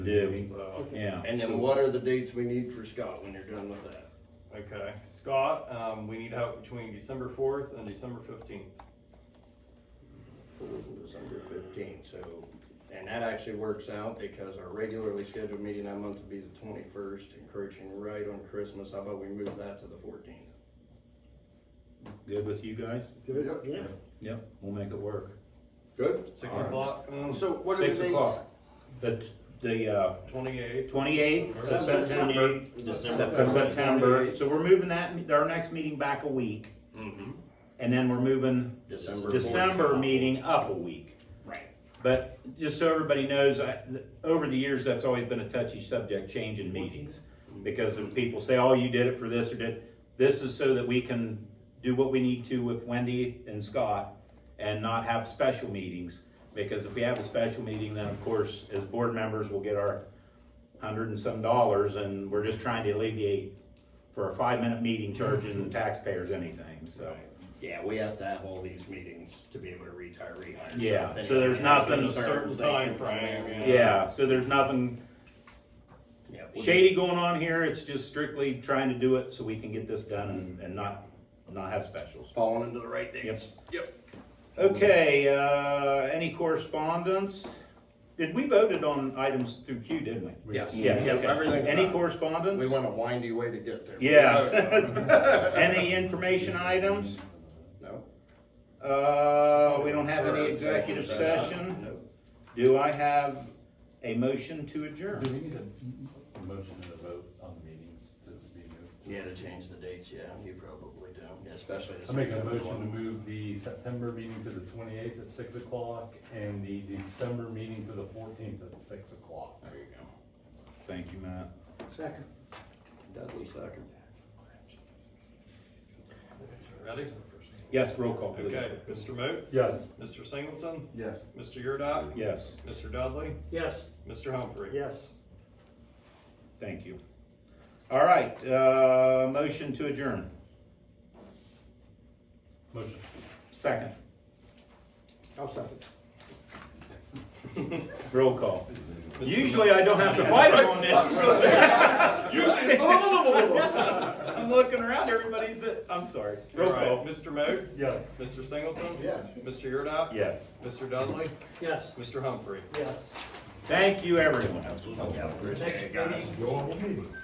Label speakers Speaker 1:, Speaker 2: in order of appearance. Speaker 1: do,
Speaker 2: So,
Speaker 1: yeah.
Speaker 3: And then what are the dates we need for Scott when you're done with that?
Speaker 2: okay, Scott, um, we need help between December fourth and December fifteenth.
Speaker 3: December fifteenth, so, and that actually works out because our regularly scheduled meeting that month would be the twenty-first, encroaching right on Christmas, how about we move that to the fourteenth?
Speaker 1: Good with you guys?
Speaker 4: Good, yeah.
Speaker 1: Yep, we'll make it work.
Speaker 4: Good.
Speaker 2: Six
Speaker 1: Alright.
Speaker 2: o'clock on
Speaker 4: So what are the
Speaker 1: Six
Speaker 4: dates?
Speaker 1: o'clock. The, the, uh,
Speaker 2: twenty-eighth.
Speaker 1: twenty-eighth of September,
Speaker 5: December.
Speaker 1: of September, so we're moving that, our next meeting back a week,
Speaker 3: Mm-hmm.
Speaker 1: and then we're moving
Speaker 3: December.
Speaker 1: December
Speaker 3: 14th.
Speaker 1: meeting up a week.
Speaker 3: Right.
Speaker 1: But just so everybody knows, I, th- over the years, that's always been a touchy subject, changing meetings. Because if people say, oh, you did it for this or did, this is so that we can do what we need to with Wendy and Scott and not have special meetings. Because if we have a special meeting, then of course, as board members, we'll get our hundred and some dollars and we're just trying to alleviate for a five-minute meeting charging the taxpayers anything, so.
Speaker 3: Yeah, we have to have all these meetings to be able to retire, rehire.
Speaker 1: Yeah,
Speaker 3: If
Speaker 1: so there's
Speaker 3: anyone has
Speaker 1: nothing-
Speaker 3: any
Speaker 2: A certain
Speaker 3: concerns, they can
Speaker 2: time frame,
Speaker 3: come in.
Speaker 1: Yeah, so there's nothing
Speaker 3: Yeah, we'll
Speaker 1: shady going on here. It's just strictly trying to do it so we can get this done and, and not, not have specials.
Speaker 3: just Falling into the right dates. Yep.
Speaker 1: Okay, uh, any correspondence? Did, we voted on items through Q, didn't we?
Speaker 3: Yes.
Speaker 1: Yes, okay.
Speaker 3: Everything's
Speaker 1: Any
Speaker 3: fine. We
Speaker 1: correspondence?
Speaker 3: went a windy way to get there.
Speaker 1: Yes. Any information items?
Speaker 3: No?
Speaker 1: Uh, we don't have any executive
Speaker 3: For our executive
Speaker 1: session.
Speaker 3: Nope.
Speaker 1: Do I have a motion to adjourn?
Speaker 5: Do we need a motion and a vote on the meetings to be moved?
Speaker 3: You had to change the dates, yeah, you probably do, Yeah, especially. the
Speaker 5: I make a
Speaker 3: September
Speaker 5: motion to
Speaker 3: one.
Speaker 5: move the September meeting to the twenty-eighth at six o'clock and the December meeting to the fourteenth at six o'clock.
Speaker 1: There you go. Thank you, Matt.
Speaker 4: Second.
Speaker 3: Dudley second.
Speaker 2: Ready?
Speaker 1: Yes, roll call, please.
Speaker 2: Okay, Mr. Moats?
Speaker 5: Yes.
Speaker 2: Mr. Singleton?
Speaker 4: Yes.
Speaker 2: Mr. Yurdak?
Speaker 1: Yes.
Speaker 2: Mr. Dudley?
Speaker 4: Yes.
Speaker 2: Mr. Humphrey?
Speaker 4: Yes.
Speaker 1: Thank you. All right, uh, motion to adjourn.
Speaker 5: Motion.
Speaker 1: Second,
Speaker 4: I'll second.
Speaker 1: roll call. Usually I don't have to fight him on this. I'm looking around, everybody's, at- I'm sorry.
Speaker 2: All
Speaker 1: Roll
Speaker 2: right,
Speaker 1: call.
Speaker 2: Mr. Moats?
Speaker 5: Yes.
Speaker 2: Mr. Singleton?
Speaker 4: Yes.
Speaker 2: Mr. Yurdak?
Speaker 1: Yes.
Speaker 2: Mr. Dudley?
Speaker 4: Yes.
Speaker 2: Mr. Humphrey?
Speaker 4: Yes.
Speaker 1: Thank you, everyone.
Speaker 3: Yeah, appreciate it,
Speaker 4: Next
Speaker 3: guys.
Speaker 4: meeting.